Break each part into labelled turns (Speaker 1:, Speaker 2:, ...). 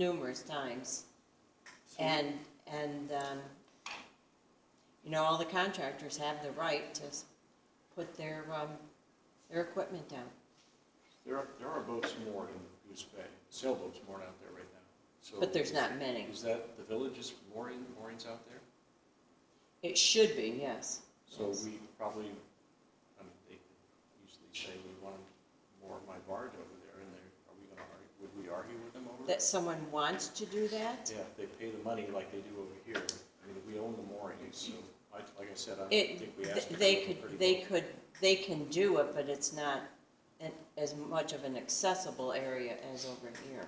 Speaker 1: numerous times.
Speaker 2: Mm-hmm.
Speaker 1: And, and, um, you know, all the contractors have the right to s- put their, um, their equipment down.
Speaker 3: There are, there are boats moored in Goose Bay, sailboats moored out there right now. So
Speaker 1: But there's not many.
Speaker 3: Is that, the village is mooring, moorings out there?
Speaker 1: It should be, yes.
Speaker 3: So
Speaker 1: Yes.
Speaker 3: we probably, I mean, they usually say we want to moor my barge over there, and they're, are we gonna argue, would we argue with them over it?
Speaker 1: That someone wants to do that?
Speaker 3: Yeah, they pay the money like they do over here. I mean, we own the moorings, so, I- like I said, I
Speaker 1: It,
Speaker 3: think we
Speaker 1: th-
Speaker 3: asked. them
Speaker 1: they
Speaker 3: to look
Speaker 1: could,
Speaker 3: pretty
Speaker 1: they
Speaker 3: well.
Speaker 1: could, they can do it, but it's not an- as much of an accessible area as over here.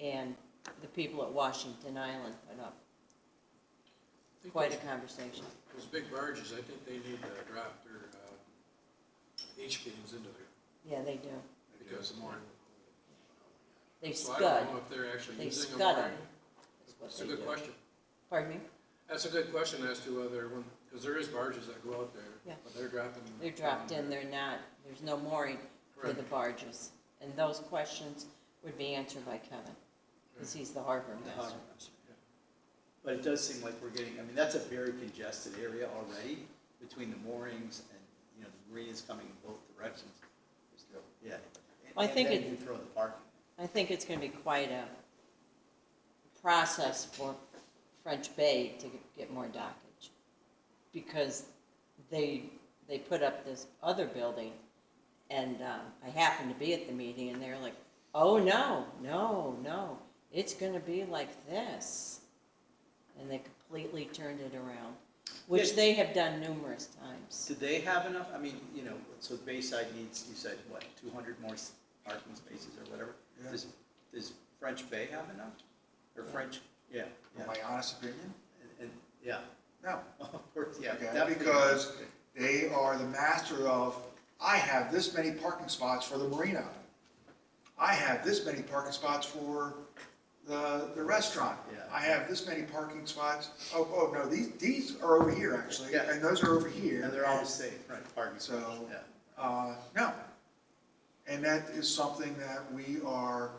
Speaker 1: And the people at Washington Island put up
Speaker 2: I think
Speaker 1: quite a
Speaker 2: those-
Speaker 1: conversation.
Speaker 2: Those big barges, I think they need to drop their uh, H beams into there
Speaker 1: Yeah, they do.
Speaker 2: because the mooring.
Speaker 1: They
Speaker 2: So I don't
Speaker 1: scud,
Speaker 2: know if they're actually
Speaker 1: they
Speaker 2: using a
Speaker 1: scud on
Speaker 2: mooring.
Speaker 1: it. is what
Speaker 2: That's a
Speaker 1: they
Speaker 2: good
Speaker 1: do.
Speaker 2: question.
Speaker 1: Pardon me?
Speaker 2: That's a good question as to whether, because there is barges that go out
Speaker 1: Yeah.
Speaker 2: there, but they're dropping.
Speaker 1: They're dropped in, they're not, there's no mooring for
Speaker 2: Correct.
Speaker 1: the barges. And those questions would be answered by Kevin, because he's the harbor
Speaker 4: the harbor
Speaker 1: master.
Speaker 4: master. But it does seem like we're getting, I mean, that's a very congested area already between the moorings and, you know, the marinas coming in both directions. Yeah. And-
Speaker 1: Well, I
Speaker 4: and
Speaker 1: think
Speaker 4: then
Speaker 1: it-
Speaker 4: you throw the parking.
Speaker 1: I think it's gonna be quite a process for French Bay to get- get more dockage. Because they, they put up this other building, and, um, I happened to be at the meeting, and they're like, oh, no, no, no, it's gonna be like this. And they completely turned it around, which
Speaker 4: Yeah.
Speaker 1: they have done numerous times.
Speaker 4: Do they have enough, I mean, you know, so Bayside needs, you said, what, two hundred more s- parking spaces or whatever?
Speaker 5: Yeah.
Speaker 4: Does, does French Bay have enough? Or French, yeah,
Speaker 5: In
Speaker 4: yeah,
Speaker 5: my honest opinion,
Speaker 4: and- and, yeah,
Speaker 5: no.
Speaker 4: of course, yeah.
Speaker 5: Okay,
Speaker 4: definitely.
Speaker 5: Because they are the master of, I have this many parking spots for the marina. I have this many parking spots for the, the restaurant.
Speaker 4: Yeah.
Speaker 5: I have this many parking spots, oh, oh, no, these, these are over here actually,
Speaker 4: Yeah.
Speaker 5: and those are over
Speaker 4: And
Speaker 5: here.
Speaker 4: they're all the same, right, parking spaces,
Speaker 5: So-
Speaker 4: yeah.
Speaker 5: Uh, no. And that is something that we are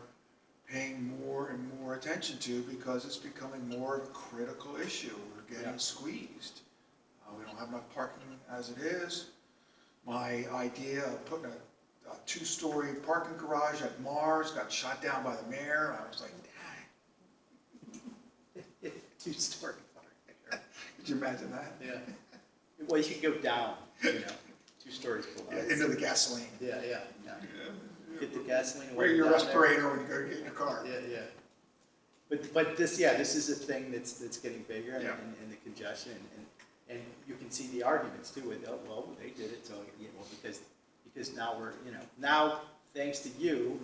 Speaker 5: paying more and more attention to because it's becoming more of a critical issue. We're
Speaker 4: Yeah.
Speaker 5: getting squeezed. Uh, we don't have enough parking as it is. My idea of putting a, a two-story parking garage at Mars got shot down by the mayor. I was like, dang,
Speaker 4: Two-story parking.
Speaker 5: could you imagine that?
Speaker 4: Yeah. Well, you can go down, you know, two stories below.
Speaker 5: Yeah, Into the gasoline.
Speaker 4: Yeah, yeah, yeah. Get the gasoline. and
Speaker 5: Wear your
Speaker 4: walk down there.
Speaker 5: respirator when you go get in your car.
Speaker 4: Yeah, yeah. But, but this, yeah, this is a thing that's, that's getting bigger and,
Speaker 5: Yeah.
Speaker 4: and the congestion and, and you can see the arguments too with, oh, well, they did it, so, you know, because, because now we're, you know, now, thanks to you,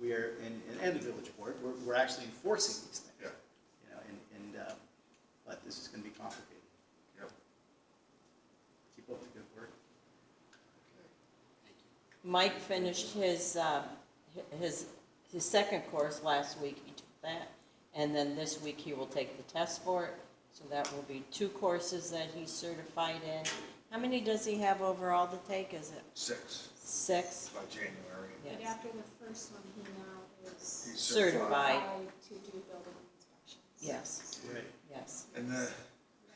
Speaker 4: we are, and, and- and the village board, we're, we're actually enforcing these things.
Speaker 5: Yeah.
Speaker 4: You know, and, and, uh, but this is gonna be complicated.
Speaker 5: Yep.
Speaker 4: Keep up the good work.
Speaker 1: Mike finished his, uh, hi- his, his second course last week, he took that, and then this week he will take the test for it. So that will be two courses that he's certified in. How many does he have overall to take? Is it
Speaker 5: Six
Speaker 1: six?
Speaker 5: by January.
Speaker 6: But
Speaker 1: Yes.
Speaker 6: after the first one, he now
Speaker 5: He's
Speaker 6: is
Speaker 1: Certified. Right.
Speaker 6: qualified to do building inspections.
Speaker 1: Yes,
Speaker 4: Right.
Speaker 1: yes.
Speaker 5: And the
Speaker 6: That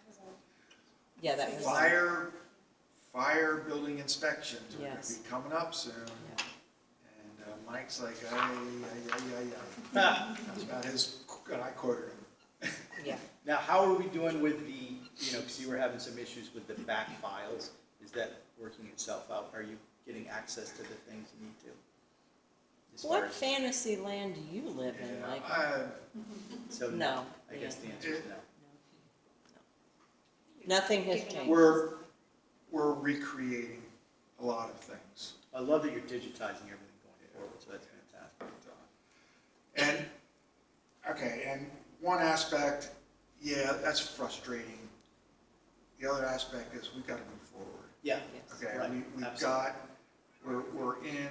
Speaker 6: was all.
Speaker 1: Yeah, that was.
Speaker 5: fire, fire building inspections are gonna
Speaker 1: Yes.
Speaker 5: be coming up soon.
Speaker 1: Yeah.
Speaker 5: And uh, Mike's like, ay, ay, ay, ay, ay. That's about his, and I quoted him.
Speaker 1: Yeah.
Speaker 4: Now, how are we doing with the, you know, because you were having some issues with the back files, is that working itself out? Are you getting access to the things you need to? As far
Speaker 1: What
Speaker 4: as-
Speaker 1: fantasy land do you live in,
Speaker 4: Yeah,
Speaker 1: Mike?
Speaker 5: I-
Speaker 4: So,
Speaker 1: No.
Speaker 4: I guess the answer is no.
Speaker 1: Nothing has changed.
Speaker 5: We're, we're recreating a lot of things.
Speaker 4: I love that you're digitizing everything going forward, so that's fantastic.
Speaker 5: uh, And, okay, and one aspect, yeah, that's frustrating. The other aspect is we've got to move forward.
Speaker 4: Yeah,
Speaker 1: Yes.
Speaker 5: Okay,
Speaker 4: Right,
Speaker 5: we, we've
Speaker 4: absolutely.
Speaker 5: got, we're, we're in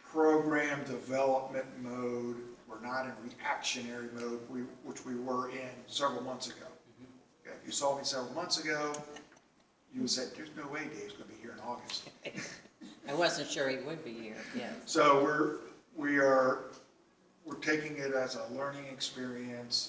Speaker 5: program development mode, we're not in reactionary mode, we, which we were in several months ago.
Speaker 4: Mm-hmm.
Speaker 5: Okay, If you saw me several months ago, you would say, there's no way Dave's gonna be here in August.
Speaker 1: I wasn't sure he would be here, yes.
Speaker 5: So we're, we are we're taking it as a learning experience